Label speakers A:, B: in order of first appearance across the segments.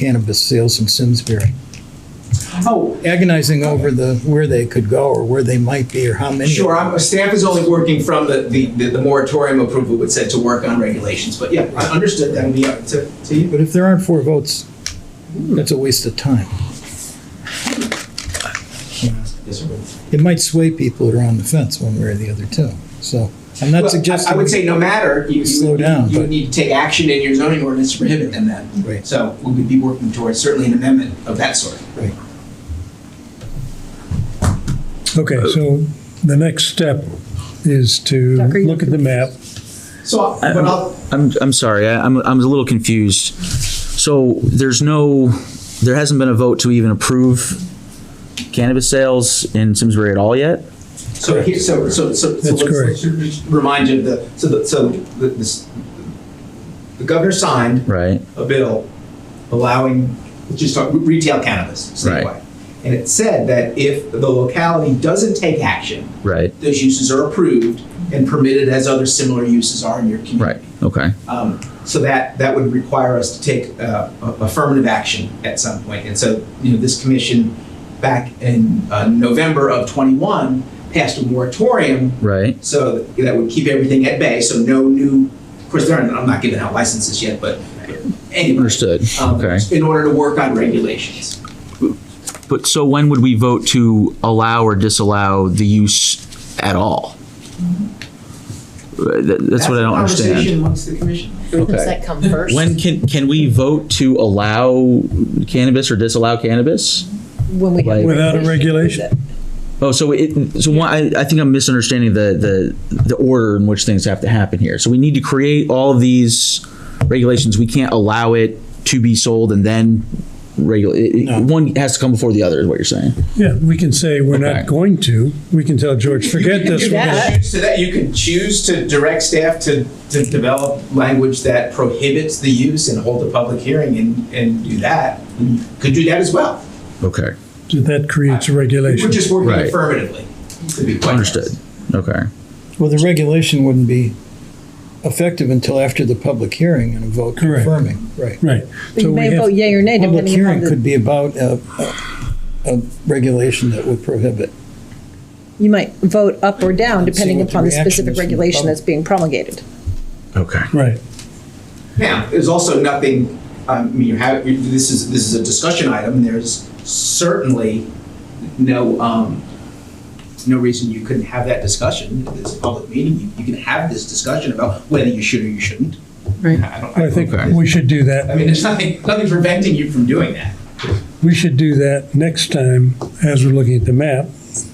A: cannabis sales in Simsbury,
B: Oh,
A: agonizing over the, where they could go or where they might be or how many.
B: sure, I'm, staff is only working from the, the, the moratorium approval, it said to work on regulations, but yeah, I understood that, we, are- to, to you.
A: But if there aren't four votes, that's a waste of time.
B: Yes, sir.
A: It might sway people who are on the fence one way or the other too. So I'm
B: Well,
A: not
B: I-
A: suggesting.
B: I would say no matter, you, you
A: Slow
B: would,
A: down,
B: you
A: but-
B: would need to take action in your zoning ordinance to prohibit them then.
A: Right.
B: So we would be working towards certainly an amendment of that sort.
C: Okay, so the next step is to
D: Tucker, you-
C: look at the map.
B: So, uh,
E: I-
B: but I'll,
E: I'm, I'm sorry, I, I'm, I'm a little confused. So there's no, there hasn't been a vote to even approve cannabis sales in Simsbury at all yet?
B: so here, so, so, so. so
C: That's
B: let's-
C: correct.
B: let's Remind you of the, so the, so the, this, the governor signed
E: Right,
B: a bill allowing, let's just talk retail cannabis statewide.
E: Right.
B: And it said that if the locality doesn't take action,
E: right,
B: those uses are approved and permitted as other similar uses are in your community.
E: right, okay,
B: Um, So that, that would require us to take uh, a- affirmative action at some point. And so, you know, this commission back in uh, November of '21 passed a moratorium
E: right,
B: so that would keep everything at bay, so no new, of course, there aren't, I'm not giving out licenses yet, but anyway.
E: understood,
B: um,
E: okay.
B: In order to work on regulations.
E: But so when would we vote to allow or disallow the use at all? Uh, that- That's what I
B: a
E: don't
B: Conversation
E: understand.
B: amongst the commission.
D: Does that come first?
E: When can, can we vote to allow cannabis or disallow cannabis?
D: When we have.
C: Without a regulation.
E: Oh, so it, so one, I, I think I'm misunderstanding the, the, the order in which things have to happen here. So we need to create all of these regulations. We can't allow it to be sold and then regulate,
A: No.
E: one has to come before the other is what you're saying.
C: Yeah, we can say we're not
E: Okay.
C: going to. We can tell George, forget
B: You can
C: this.
B: choose
C: we're gonna-"
B: To that, you can choose to direct staff to, to develop language that prohibits the use and hold a public hearing and, and do that. You Could do that as well.
E: Okay.
C: That creates a
B: We're
C: regulation.
B: just working
E: Right.
B: affirmatively, to be quite honest.
E: Understood. Okay.
A: Well, the regulation wouldn't be effective until after the public hearing and a vote
C: Correct.
A: confirming, right?
C: Right. So
D: You
C: we
D: may
C: have-
D: vote yea or nay
A: Public
D: depending upon
A: hearing
D: the,
A: could be about a, a, a regulation that would prohibit.
D: you might vote up or down
A: And see
D: depending
A: what the
D: upon the
A: reaction
D: specific
A: is from the
D: regulation
A: public.
D: that's being promulgated.
E: Okay.
C: Right.
B: Now, there's also nothing, um, I mean, you have, you- this is, this is a discussion item, there's certainly no, um, no reason you couldn't have that discussion, it's a public meeting, you, you can have this discussion about whether you should or you shouldn't.
D: Right.
B: I don't,
C: I
B: I
C: think
E: Okay.
C: we should do
B: I
C: that.
B: mean, there's nothing, nothing preventing you from doing that.
C: We should do that next time as we're looking at the map.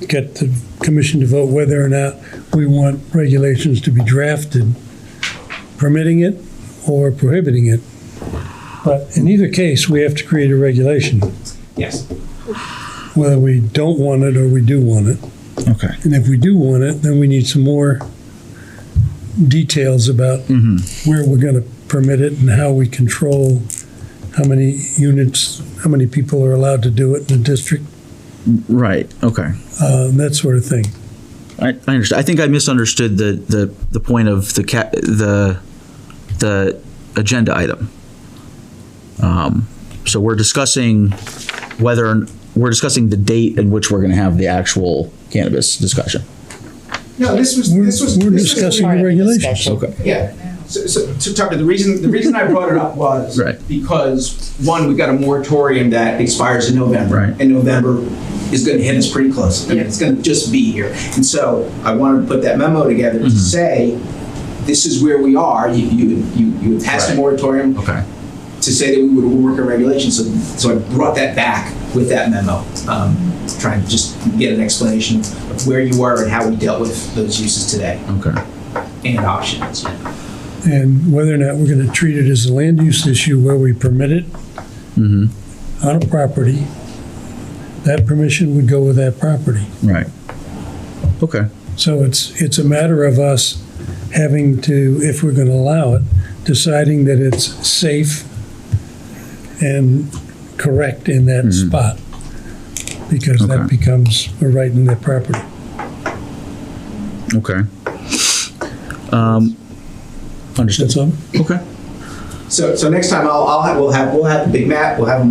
C: Get the commission to vote whether or not we want regulations to be drafted permitting it or prohibiting it. But in either case, we have to create a regulation.
B: Yes.
C: whether we don't want it or we do want it.
E: Okay.
C: And if we do want it, then we need some more details about where we're going to permit it and how we control how many units, how many people are allowed to do it in the district,
E: Right. Okay.
C: uh, that sort of thing.
E: I, I understand. I think I misunderstood the, the, the point of the ca- the, the agenda item. Um, so we're discussing whether, we're discussing the date in which we're gonna have the actual cannabis discussion.
B: No, this was,
C: We're
B: this was.
C: we're
B: this was-
C: discussing the regulations.
E: Okay.
B: Yeah, so, so, so Tucker, the reason, the reason I brought it up was
E: Right.
B: because, one, we've got a moratorium that expires in November.
E: Right.
B: And November is gonna hit us pretty close, I mean, it's gonna just be here. And so I wanted to put that memo together
E: Mm-hmm.
B: to say, this is where we are, you, you, you, you passed a
E: Right.
B: moratorium
E: Okay.
B: to say that we would work on regulations, so, so I brought that back with that memo. Um, trying to just get an explanation of where you were and how we dealt with those uses today
E: Okay.
B: and options.
C: And whether or not we're going to treat it as a land use issue where we permit it on a property, that permission would go with that property.
E: Right. Okay.
C: So it's, it's a matter of us having to, if we're going to allow it, deciding that it's safe and correct in that spot, because that
E: Okay.
C: becomes a right in their property.
E: Okay. Um, understood.
C: That's all.
E: Okay.
B: So, so next time I'll, I'll have, we'll have, we'll have the big map, we'll have them